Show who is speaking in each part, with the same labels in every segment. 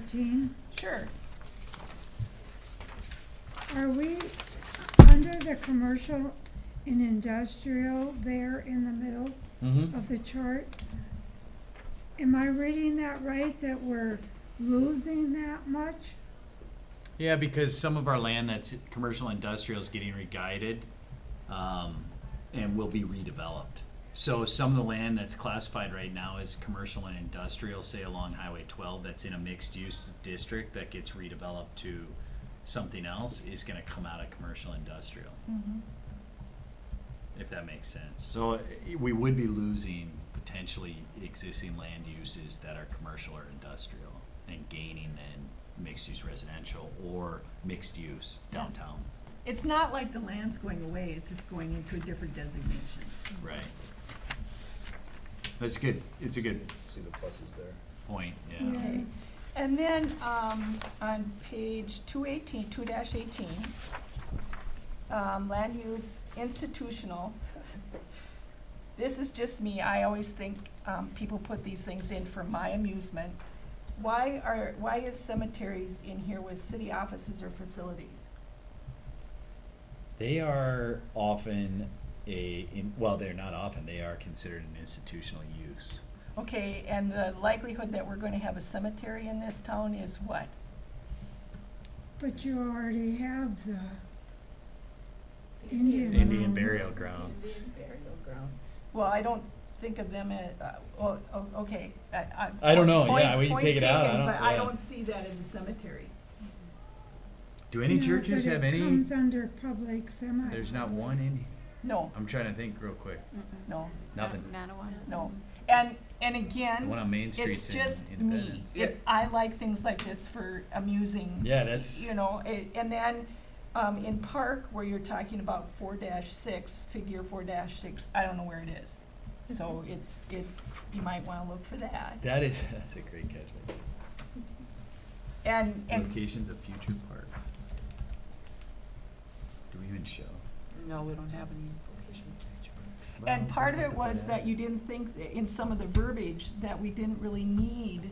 Speaker 1: fourteen,
Speaker 2: Sure.
Speaker 1: are we under the commercial and industrial there in the middle
Speaker 3: Mm-hmm.
Speaker 1: of the chart? Am I reading that right, that we're losing that much?
Speaker 3: Yeah, because some of our land that's commercial industrial is getting re-guided, um, and will be redeveloped. So some of the land that's classified right now as commercial and industrial, say along Highway twelve, that's in a mixed-use district that gets redeveloped to something else, is gonna come out of commercial industrial, if that makes sense. So uh, we would be losing potentially existing land uses that are commercial or industrial and gaining then mixed-use residential or mixed-use downtown,
Speaker 2: It's not like the land's going away, it's just going into a different designation.
Speaker 3: right? That's good, it's a good
Speaker 4: See the pluses there.
Speaker 3: point,
Speaker 1: Yeah.
Speaker 3: yeah.
Speaker 2: Okay. And then, um, on page two eighteen, two dash eighteen, um, land use institutional. This is just me, I always think, um, people put these things in for my amusement. Why are, why is cemeteries in here with city offices or facilities?
Speaker 3: They are often a, in- well, they're not often, they are considered an institutional use.
Speaker 2: Okay, and the likelihood that we're gonna have a cemetery in this town is what?
Speaker 1: But you already have the, Indian
Speaker 3: Indian
Speaker 1: Grounds.
Speaker 3: burial ground.
Speaker 2: Indian burial ground. Well, I don't think of them as, uh, oh, oh, okay, I, I.
Speaker 3: I don't know,
Speaker 2: point-
Speaker 3: yeah, we can
Speaker 2: point
Speaker 3: take it out, I
Speaker 2: taken,
Speaker 3: don't-
Speaker 2: But I
Speaker 3: yeah.
Speaker 2: don't see that in the cemetery.
Speaker 3: Do any
Speaker 1: Yeah, but
Speaker 3: churches
Speaker 1: it
Speaker 3: have any,
Speaker 1: Comes under public semi.
Speaker 3: there's not one in,
Speaker 2: No,
Speaker 3: I'm trying to think real quick,
Speaker 2: no,
Speaker 3: nothing.
Speaker 5: Not a one.
Speaker 2: no. And, and
Speaker 3: The
Speaker 2: again,
Speaker 3: one on Main
Speaker 2: it's
Speaker 3: Street's in
Speaker 2: just me.
Speaker 3: Independence.
Speaker 2: It's, I like things like this for amusing.
Speaker 3: Yeah, that's-
Speaker 2: You know, a- and then, um, in park where you're talking about four dash six, figure four dash six, I don't know where it is. So it's, it, you might wanna look for that.
Speaker 3: That is, that's a great catch. right
Speaker 2: And,
Speaker 3: there.
Speaker 2: and
Speaker 3: Locations of future parks. Do we even show?
Speaker 6: No, we don't have any locations.
Speaker 2: And part of it was that you didn't think, that in some of the verbiage, that we didn't really need,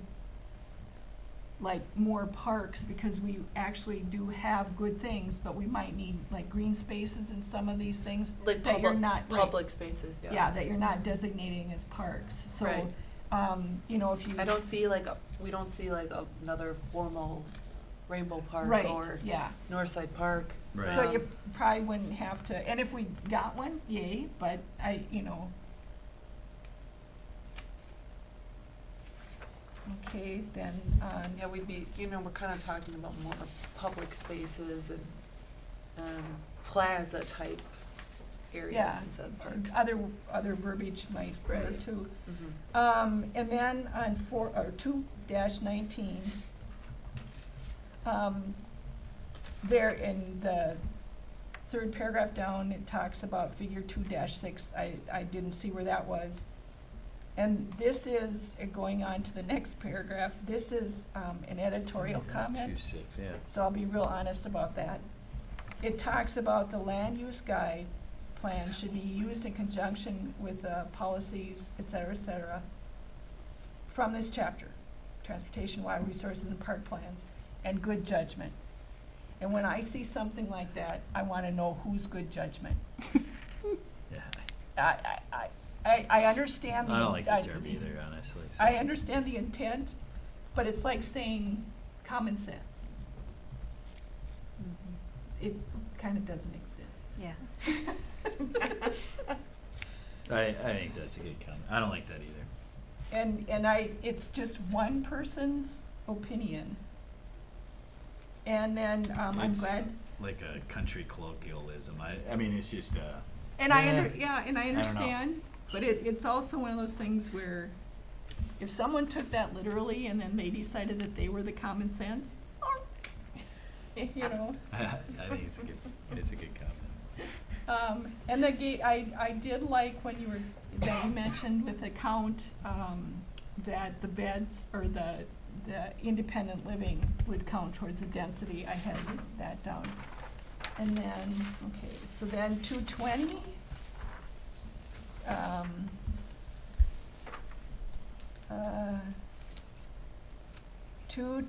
Speaker 2: like, more parks, because we actually do have good things, but we might need, like, green spaces in some of these things.
Speaker 6: Like
Speaker 2: that you're
Speaker 6: public,
Speaker 2: not- right.
Speaker 6: public spaces, yeah.
Speaker 2: Yeah, that you're not designating as parks, so,
Speaker 6: Right.
Speaker 2: um, you know, if you.
Speaker 6: I don't see like, a we don't see like a- another formal Rainbow Park or
Speaker 2: Right, yeah,
Speaker 6: Northside Park.
Speaker 3: Right.
Speaker 2: so you
Speaker 6: Um,
Speaker 2: probably wouldn't have to, and if we got one, yay, but I, you know. Okay, then, um,
Speaker 6: Yeah, we'd be, you know, we're kind of talking about more public spaces and, um, plaza type areas
Speaker 2: Yeah.
Speaker 6: instead of parks.
Speaker 2: Other, other verbiage might work
Speaker 6: Right.
Speaker 2: too.
Speaker 6: Mhm.
Speaker 2: Um, and then on four, or two dash nineteen, um, there in the third paragraph down, it talks about figure two dash six, I, I didn't see where that was. And this is, uh, going on to the next paragraph, this is, um, an editorial comment.
Speaker 3: Two six, yeah.
Speaker 2: so I'll be real honest about that. It talks about the land use guide plan should be used in conjunction with the policies, et cetera, et cetera, from this chapter, transportation, water resources, and park plans, and good judgment. And when I see something like that, I wanna know whose good judgment.
Speaker 3: Yeah.
Speaker 2: I, I, I- I, I understand.
Speaker 3: I don't like the
Speaker 2: I-
Speaker 3: term either, honestly. so.
Speaker 2: I understand the intent, but it's like saying common sense. Mm-hmm. It kind of doesn't exist.
Speaker 5: Yeah.
Speaker 3: I, I think that's a good comment. I don't like that either.
Speaker 2: And, and I, it's just one person's opinion. And then, um, I'm
Speaker 3: It's-
Speaker 2: glad,
Speaker 3: Like a country colloquialism. I, I mean, it's just, uh,
Speaker 2: and I,
Speaker 3: Yeah.
Speaker 2: under- yeah, and I
Speaker 3: know.
Speaker 2: understand, but it, it's also one of those things where if someone took that literally and then they decided that they were the common sense, you know.
Speaker 3: I think it's a good, it's a good comment.
Speaker 2: Um, and the ga- I, I did like when you were, that you mentioned with the count, um, that the beds or the, the independent living would count towards the density. I had that down. And then, okay, so then two twenty. Um, uh, two